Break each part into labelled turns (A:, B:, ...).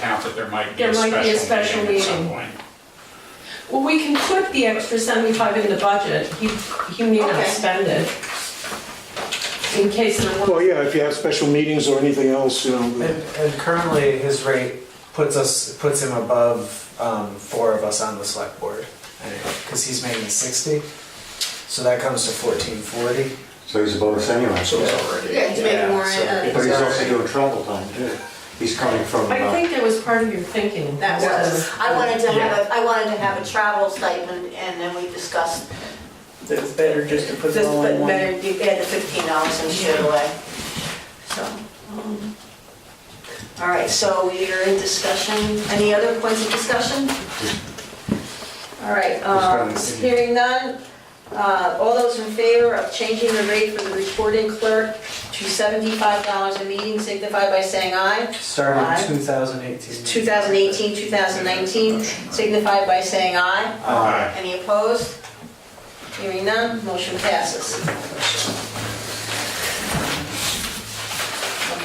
A: that there might be
B: There
A: a
B: might be a
A: special
B: special
A: meeting at some
B: meeting.
A: point.
B: Well, we can put the extra seventy-five in the budget, he, he may not
C: Okay.
B: spend it. In case there were.
D: Well, yeah, if you have special meetings or anything else, you know,
E: And, and currently, his rate puts us, puts him above um, four of us on the select board, because he's making sixty, so that comes to fourteen forty.
F: So he's a bonus anyway.
A: So it's already.
C: Yeah, he's making more, uh,
F: But he's also doing travel time too. He's coming from,
B: I
F: uh,
B: think that was part of your thinking.
C: That was, I wanted to
E: Yeah.
C: have a, I wanted to have a travel stipend, and then we discussed,
G: It's better just to put it
C: this,
G: all in
C: but
G: one.
C: better, you had the fifteen dollars and shit away, so. um, All right, so we are in discussion, any other points of discussion? All right, um,
F: Discussion.
C: hearing none, uh, all those in favor of changing the rate for the recording clerk to seventy-five dollars a meeting signify by saying aye. Aye.
E: Starting two thousand eighteen.
C: 2018, 2019, signified by saying
E: Uh,
C: aye.
A: Aye.
C: Any opposed? Hearing none, motion passes.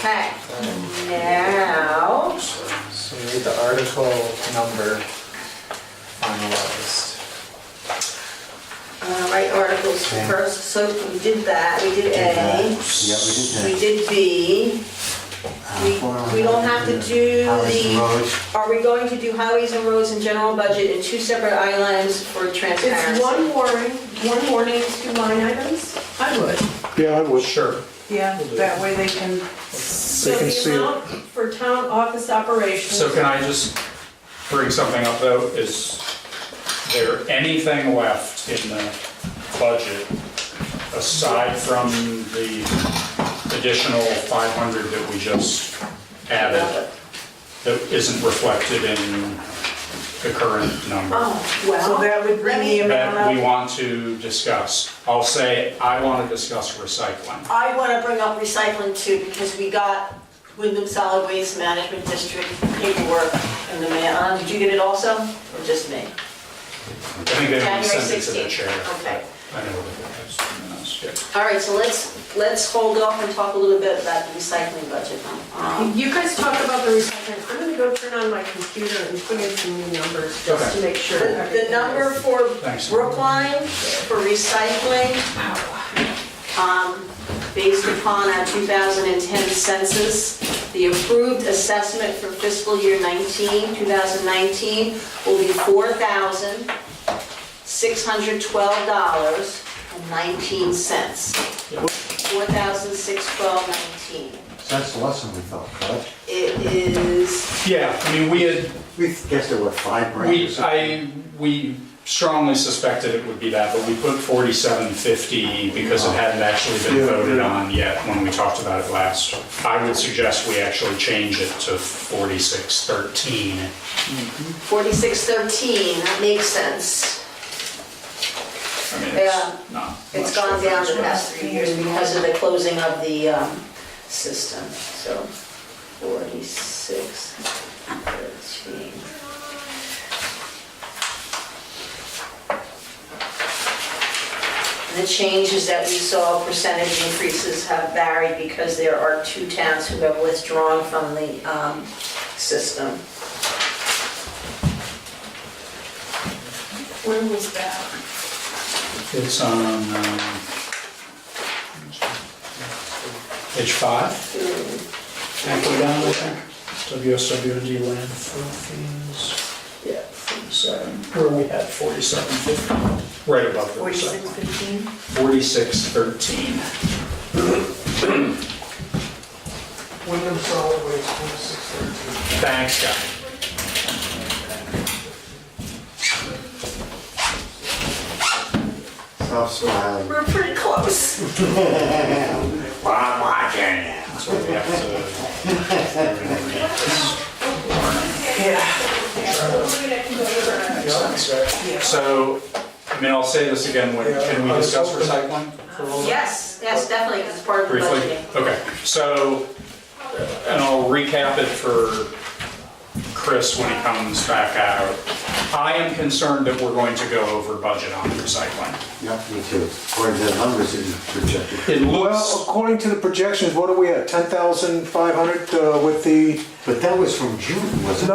C: Okay, now,
E: So we need the article number finalized.
C: uh, right articles first, so we did that, we did A,
F: yeah, we
C: we
F: did that.
C: did B. We we don't have to do
F: Hours and
C: the,
F: roads.
C: are we going to do highways and roads and general budget in two separate islands for transparency?
B: It's one warning, one warning, two line items? I would.
D: yeah, I would.
E: Sure.
G: Yeah, that way they can,
B: So
D: can
B: the
D: see it.
B: amount for town office operations,
A: So can I just bring something up though? Is there anything left in the budget aside from the additional 500 that we just added that isn't reflected in the current number?
C: Oh,
G: so
C: well,
G: that would
C: Let
G: bring
C: me-
G: the amount
A: That we
G: up.
A: want to discuss. I'll say, I want to discuss recycling.
C: I want to bring up recycling too, because we got Wyndham Solid Waste Management District paperwork in the mail. Uh, Did you get it also, or just me?
A: I think they
C: January
A: only sent it to the
C: 16th.
A: chair.
C: Okay.
A: I know what it is.
C: All right, so let's, let's hold off and talk a little bit about the recycling budget. Um,
B: you guys talk about the recycling, I'm gonna go turn on my computer and put in some new numbers just
A: Okay.
B: to make sure.
C: The the
B: everything
C: number
B: is-
C: for
A: Thanks.
C: Brookline for recycling, um, based upon our 2010 census, the approved assessment for fiscal year 19, 2019, will be $4,612.19.
A: Yep.
C: $4,612.19.
F: So that's the lesson we thought, correct?
C: It is,
A: Yeah, I mean, we had,
F: We guessed it was five grand or
A: We,
F: something.
A: I, we strongly suspected it would be that, but we put forty-seven fifty because it hadn't actually been voted on yet when we talked about it last. I would suggest we actually change it to forty-six thirteen.
C: 4613, that makes sense.
A: I mean,
C: Yeah.
A: it's not.
C: It's
A: much
C: gone down the
A: difference,
C: past three years because of the closing of the um, system, so 46, 13. The changes that we saw, percentage increases have varied because there are two towns who have withdrawn from the um, system.
B: Where was that?
A: but It's on, um, page five, halfway down, I think. WSWD landfill fees,
C: Yeah.
A: forty-seven, where we had forty-seven fifty, right above the recycling.
C: 4615?
A: 4613.
E: Wyndham Solid Waste, twenty-six thirteen.
A: Thanks, guy.
F: Stop smiling.
C: We're pretty close.
F: Well, I'm watching it.
A: That's what we have to. So, I mean, I'll say this again, when- can we discuss recycling? for a little bit?
C: Yes, yes, definitely, it's part of the
A: briefly?
C: budgeting.
A: Okay, so, and I'll recap it for Chris when he comes back out. I am concerned that we're going to go over budget on recycling.
F: Yep, me too. According to the numbers that you projected.
A: It looks.
D: Well, according to the projections, what are we at, 10,500 uh, with the
F: But that was from June, wasn't it?